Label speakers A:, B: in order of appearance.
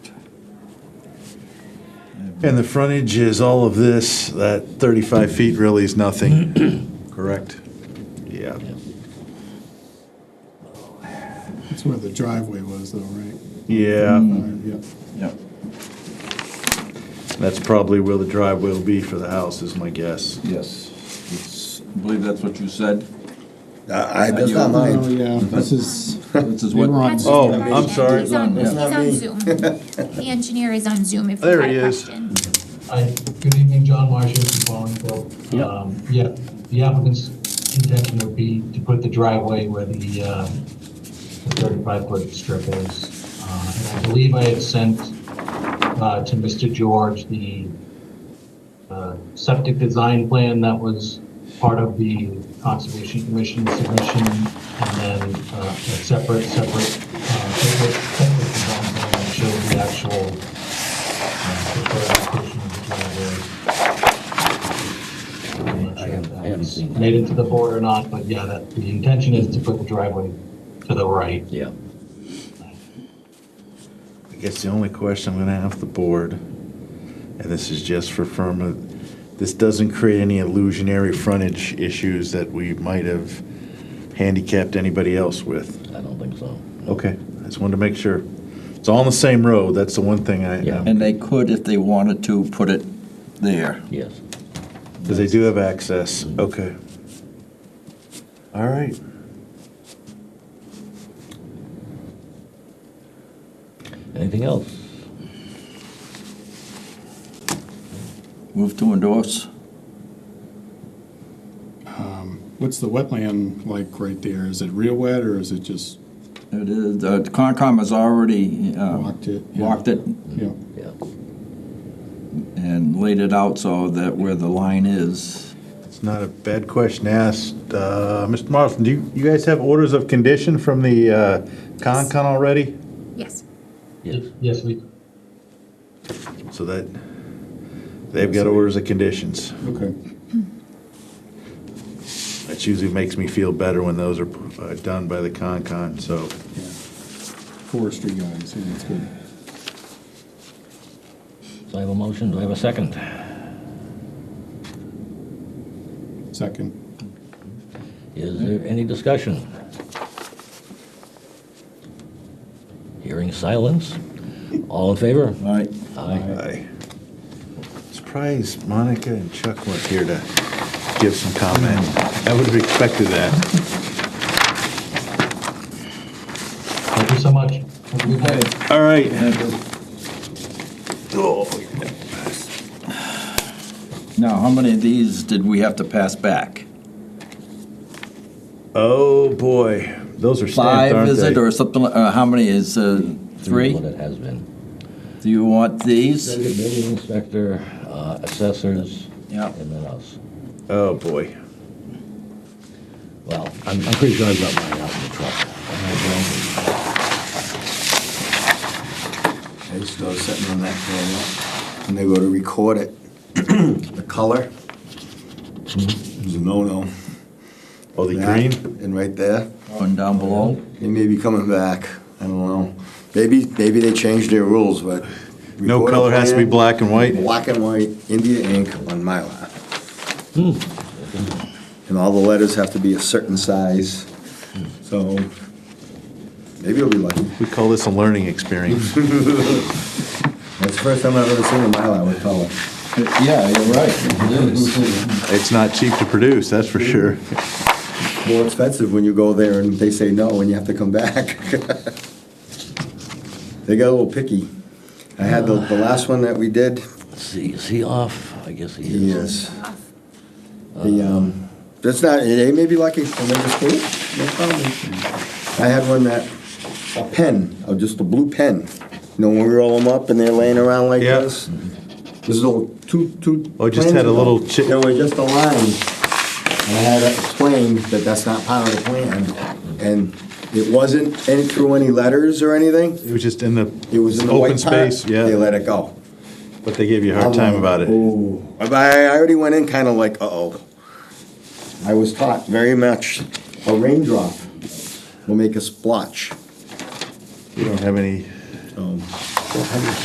A: And the frontage is all of this, that 35 feet really is nothing, correct? Yeah.
B: That's where the driveway was though, right?
A: Yeah,
B: Yep.
C: Yep.
A: that's probably where the driveway will be for the house, is my guess.
C: Yes. It's- I believe that's what you said.
D: I, I- that's
C: You-
D: not
B: Oh,
D: mine.
B: yeah, this is,
C: This is
B: we were
C: what,
B: on,
A: Oh, I'm sorry.
E: He's on,
C: Yeah.
E: he's
D: Not
E: on
D: me.
E: Zoom. The engineer is on Zoom if you
A: There
E: have a
A: he is.
E: question.
F: Hi, good evening, John Marshall from Bolingbrook. Um, Yeah, the applicant's intention would be to put the driveway where the uh, the 35-foot strip is. Uh, And I believe I had sent uh, to Mr. George the uh, septic design plan that was part of the Conservation Commission submission, and then uh, a separate, separate, uh, separate septic design plan that showed the actual I haven't seen. Made it to the board or not, but yeah, that, the intention is to put the driveway to the right.
D: Yeah.
A: I guess the only question I'm gonna have the board, and this is just for firm, uh, this doesn't create any illusionary frontage issues that we might have handicapped anybody else with.
D: I don't think so.
A: Okay, I just wanted to make sure. It's all on the same road, that's the one thing I,
D: Yeah.
A: um,
C: and they could, if they wanted to, put it there.
D: Yes.
A: Because they do have access, okay. All right.
D: Anything else?
C: Move to endorse.
B: what's the wetland like right there? Is it real wet or is it just
C: It is, the Concom has already uh,
B: walked it? Yeah.
C: walked it
B: Yeah,
D: Yeah.
C: and laid it out so that where the line is.
A: It's not a bad question asked. Uh, Mr. Marston, do you, you guys have orders of condition from the uh, Concon already?
E: Yes.
D: Yes.
F: Yes, we,
A: So that, they've got orders of conditions.
B: okay.
A: That usually makes me feel better when those are uh, done by the Concon, so.
B: Yeah. Forestry guys, yeah, that's good.
D: So I have a motion. Do I have a second?
B: Second,
D: Is there any discussion? Hearing silence. All in favor?
C: All right,
D: Aye.
A: I Surprised Monica and Chuck weren't here to give some comment. I would have expected that.
F: thank you so much. Have a good night.
A: All right.
C: thank you.
A: Oh.
C: Now, how many of these did we have to pass back?
A: Oh, boy. Those are stamped,
C: Five,
A: aren't
C: is
A: they?
C: it, or something, like- uh, how many is, uh, three?
D: What it has been.
C: Do you want these?
D: Building inspector, uh, assessors,
C: Yeah.
D: and then us.
A: Oh, boy.
D: Well, I'm, I'm pretty sure I've got mine out in the truck. I
G: I just started sitting on that for a while. When they go to record it, the color is a no-no.
A: Oh, Mm-hmm. the
G: That
A: green?
G: And right there,
C: One down below?
G: they may be coming back, I don't know. Maybe, maybe they changed their rules, but.
A: No
G: record a
A: color has to be
G: plan,
A: black and white?
G: Black and white, India ink on Mylar.
A: Hmm.
G: And all the letters have to be a certain size, so maybe you'll be lucky.
A: We call this a learning experience.
G: That's the first time I've ever seen a Mylar with color.
C: Yeah, you're right, it is.
A: It's not cheap to produce, that's for sure.
G: More expensive when you go there and they say no and you have to come back. They got a little picky. I had the, the last one that we did,
D: don't, see, is he off? I guess he is.
G: yes. The, um, that's not, they may be lucky, and they just do it, no problem. I had one that, a pen, uh, just a blue pen. You know, when we roll them up and they're laying around like
A: Yeah.
G: this? This is all two, two.
A: Oh, it just had a little chi-
G: There was just a line, and I had to explain that that's not part of the plan. And it wasn't in through any letters or anything,
A: It was just in the
G: it was in the
A: open
G: white part.
A: space,
G: They
A: yeah,
G: let it go.
A: but they gave you a hard time about it.
G: Ooh. But I I already went in kind of like, uh-oh. I was taught very much, a raindrop will make a splotch.
A: You don't have any
G: So